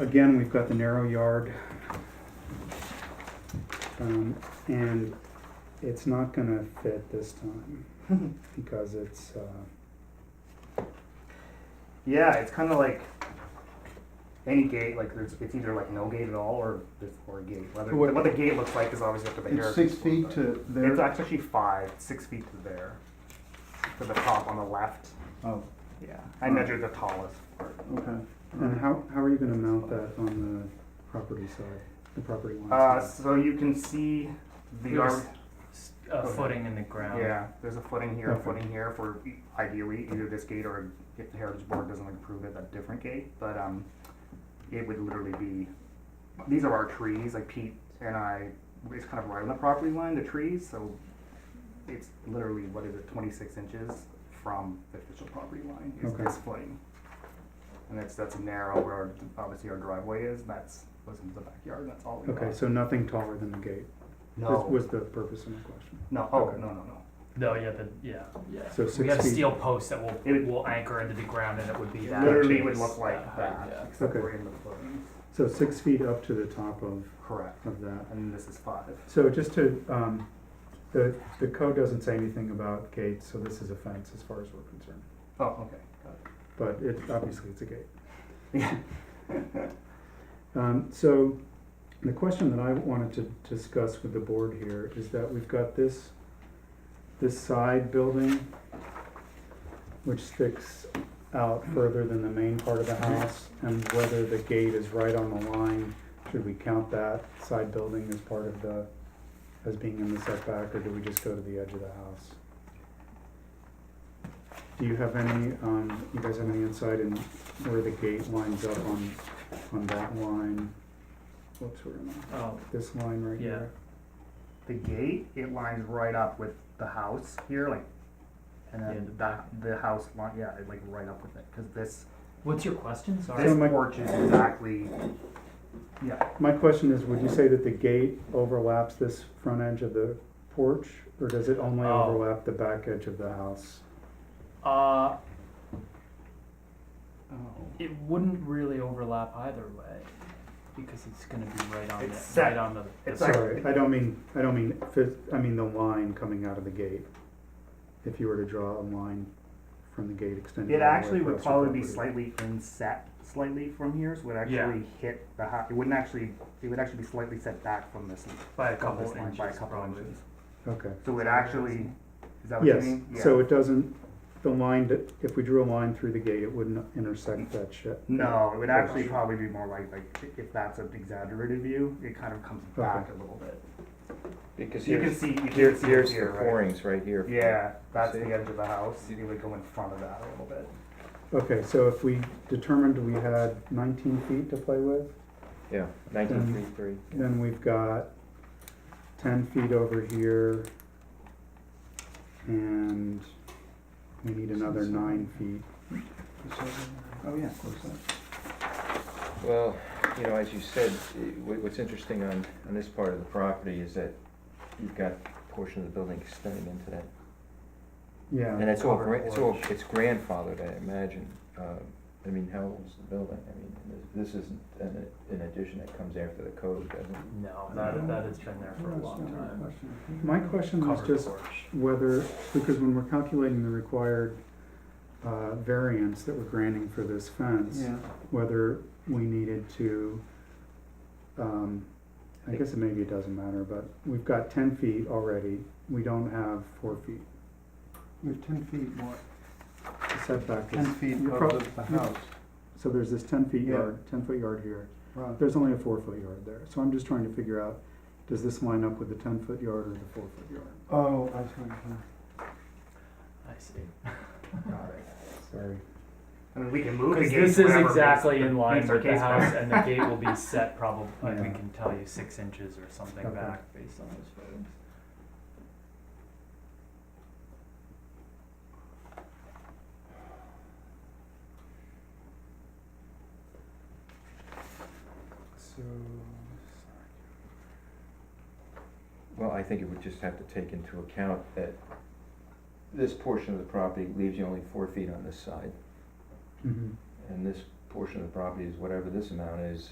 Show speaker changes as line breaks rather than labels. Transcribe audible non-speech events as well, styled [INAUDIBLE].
Again, we've got the narrow yard. Um, and it's not gonna fit this time
[LAUGHS]
because it's, uh,
Yeah, it's kind of like any gate. Like there's, it's either like no gate at all or there's or a gate. Whether
What-
what the gate looks like is obviously up to the
It's
heritage
six
board,
feet
but
to
It's
there.
actually five, six feet to there, to the top on the left.
Oh,
Yeah, I
Alright.
measured the tallest part.
okay.
and how, how are you gonna mount that on the property side, the property line?
Uh,
side?
so you can see the
There's
ar-
s- a
Okay.
footing in the ground.
yeah. There's a footing here,
Okay.
a footing here for e- ideally either this gate or if the heritage board doesn't approve it, a different gate. But um, it would literally be these are our trees. Like Pete and I, it's kind of right on the property line, the trees. So it's literally what is it, 26 inches from the official property line is
Okay.
this footing. And that's that's narrow where our, obviously our driveway is. That's was into the backyard. and That's all we
Okay,
got.
so nothing taller than the gate,
no,
was, was the purpose of my question.
no, oh
okay.
no, no, no.
No, yeah, the, yeah, yeah.
So
we
six
have
feet.
steel posts that will
It would-
will anchor into the ground, and it would be that.
literally
big,
would look like
height,
that,
yeah.
except
Okay.
we're in the footing.
So six feet up to the top of,
Correct.
of that.
And this is five.
So just to, um, the, the code doesn't say anything about gates, so this is a fence as far as we're concerned.
Oh, okay. Got it.
But it, obviously it's a gate.
Yeah.
[LAUGHS] Um, so the question that I wanted to discuss with the board here is that we've got this, this side building, which sticks out further than the main part of the house, and whether the gate is right on the line, should we count that side building as part of the, as being in the setback, or do we just go to the edge of the house? Do you have any, um, you guys have any insight in where the gate lines up on, on that line? Whoops, where am I?
Oh,
This line right
Yeah.
here?
The gate, it lines right up with the house here, like, and
Yeah, the
then the,
back.
the house line, yeah, it like right up with it, because this,
what's your question? Sorry.
this
my-
porch is exactly, yeah,
My question is, would you say that the gate overlaps this front edge of the porch, or does it only
Oh.
overlap the back edge of the house?
Uh,
oh,
it wouldn't really overlap either way, because it's going to be right on
It's
the
set.
right on the. the
It's
side.
like-
Sorry, I don't mean, I don't mean, phys- I mean the line coming out of the gate. If you were to draw a line from the gate extending. all
It
the way
actually would
across your
probably be
property.
slightly inset slightly from here, so it would
Yeah.
actually hit the house. It wouldn't actually, it would actually be slightly set back from this,
by a
from
couple
this line
inches,
by a couple
probably.
inches.
Okay.
So it actually, is that what you
Yes,
mean? Yeah.
so it doesn't, the line, that- if we drew a line through the gate, it wouldn't intersect that shit.
No, it would actually probably be more like, like, if that's an exaggerated view, it kind of comes back a little bit.
Because
You can
here's,
see, you
here,
can see it
here's the
here, right?
pourings right here.
Yeah, that's the
See?
edge of the house, you would go in front of that a little bit.
Okay, so if we determined we had nineteen feet to play with,
Yeah, nineteen three three.
then we've got ten feet over here. And we need another nine feet.
Oh, yeah, of course. that-
Well, you know, as you said, eh, wh- what's interesting on, on this part of the property is that you've got a portion of the building extending into that. And
Yeah,
it's all,
Uh, covered
gran- it's all,
porch.
it's grandfathered, I imagine. Um, I mean, how old is the building? I mean, and this this isn't an, an addition that comes after the code, does it?
No, that that has been there for a
That's
long
another
time.
question.
my question was
Covered
just
porch.
whether, because when we're calculating the required, uh, variance that we're granting for this fence.
Yeah,
whether we needed to, um, I guess it maybe it doesn't matter, but we've got ten feet already, we don't have four feet.
we have ten feet more,
The setback
ten
is,
feet
you're
above
prob-
the- the
you're-
house,
so there's this ten feet
Yeah.
yard, ten foot yard here,
right.
there's only a four foot yard there, so I'm just trying to figure out, does this line up with the ten foot yard or the four foot yard?
Oh, I see, what you're saying.
I see.
Got it.
Sorry.
I mean, we can move the
Because
gate.
this is
wherever
exactly
meets-
in line
meets our
with the
case plan.
house, and the gate will be set probably, like, we
Yeah.
can tell you six inches or something
Okay.
back based on those photos.
So,
Well, I think it would just have to take into account that this portion of the property leaves you only four feet on this side.
mm-hmm,
And this por- portion of the property is whatever this amount is,